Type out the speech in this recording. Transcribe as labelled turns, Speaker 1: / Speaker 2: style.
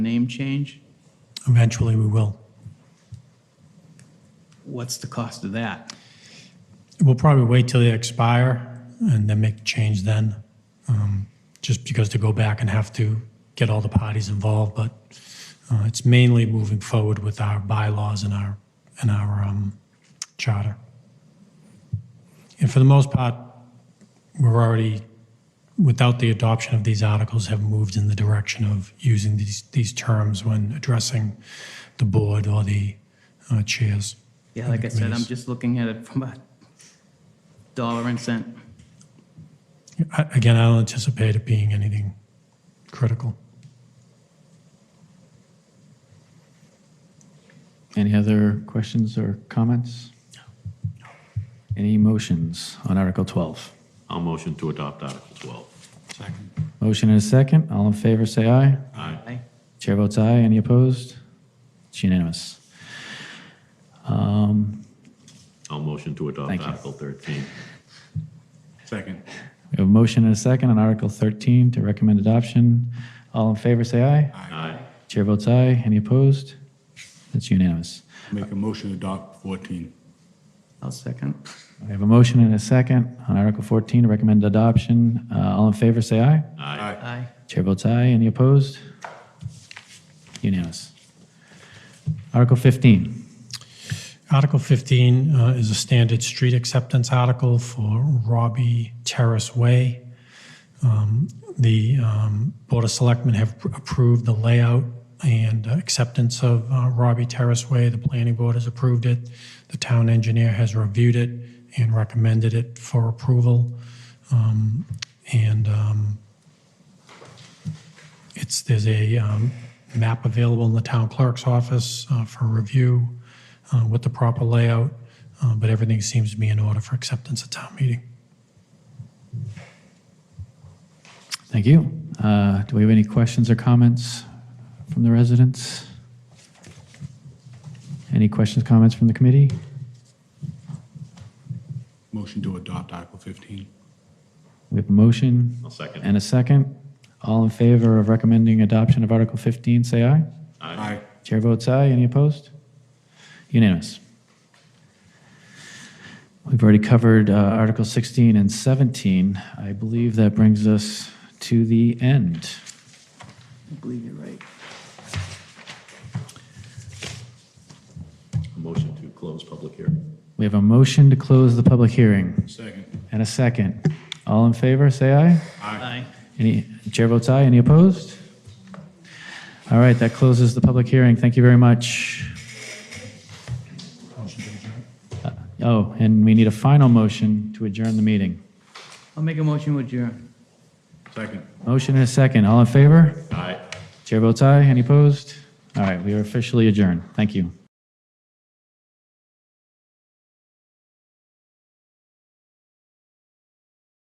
Speaker 1: name change?
Speaker 2: Eventually, we will.
Speaker 1: What's the cost of that?
Speaker 2: We'll probably wait till they expire and then make the change then, um, just because to go back and have to get all the parties involved. But uh, it's mainly moving forward with our bylaws and our, and our um, charter. And for the most part, we're already, without the adoption of these articles, have moved in the direction of using these, these terms when addressing the board or the uh, chairs.
Speaker 1: Yeah,
Speaker 2: and
Speaker 1: like
Speaker 2: the
Speaker 1: I said, I'm
Speaker 2: committees.
Speaker 1: just looking at it from a dollar and cent.
Speaker 2: I- Again, I don't anticipate it being anything critical.
Speaker 3: Any other questions or comments? Any motions on Article 12?
Speaker 4: I'll motion to adopt Article 12.
Speaker 3: Motion and a second. All in favor, say aye.
Speaker 4: Aye.
Speaker 1: Aye.
Speaker 3: Chair votes aye. Any opposed? It's unanimous. Um,
Speaker 4: I'll motion to adopt
Speaker 3: Thank you.
Speaker 4: Article 13.
Speaker 3: We have a motion and a second on Article 13 to recommend adoption. All in favor, say aye.
Speaker 4: Aye.
Speaker 3: Chair votes aye. Any opposed? It's unanimous.
Speaker 5: Make a motion to adopt 14.
Speaker 1: I'll second.
Speaker 3: We have a motion and a second on Article 14 to recommend adoption. Uh, All in favor, say aye.
Speaker 4: Aye.
Speaker 1: Aye.
Speaker 3: Chair votes aye. Any opposed? Unanimous. Article 15.
Speaker 2: Article 15 uh, is a standard street acceptance article for Robbie Terrace Way. Um, The um, Board of Selectmen have approved the layout and acceptance of uh, Robbie Terrace Way. The Planning Board has approved it. The town engineer has reviewed it and recommended it for approval. Um, And um, It's, there's a um, map available in the town clerk's office uh, for review uh, with the proper layout, uh, but everything seems to be in order for acceptance at town meeting.
Speaker 3: Thank you. Uh, Do we have any questions or comments from the residents? Any questions, comments from the committee?
Speaker 5: Motion to adopt Article 15.
Speaker 3: We have a motion
Speaker 4: I'll second.
Speaker 3: and a second. All in favor of recommending adoption of Article 15, say aye.
Speaker 5: Aye.
Speaker 3: Chair votes aye. Any opposed? Unanimous. We've already covered uh, Article 16 and 17. I believe that brings us to the end.
Speaker 1: I believe you're right.
Speaker 4: Motion to close public hearing.
Speaker 3: We have a motion to close the public hearing
Speaker 5: Second.
Speaker 3: and a second. All in favor, say aye.
Speaker 1: Aye.
Speaker 3: Any, chair votes aye. Any opposed? All right, that closes the public hearing. Thank you very much. Uh, Oh, and we need a final motion to adjourn the meeting.
Speaker 1: I'll make a motion with adjourn.
Speaker 5: Second.
Speaker 3: Motion and a second. All in favor?
Speaker 4: Aye.
Speaker 3: Chair votes aye. Any opposed? All right, we are officially adjourned. Thank you.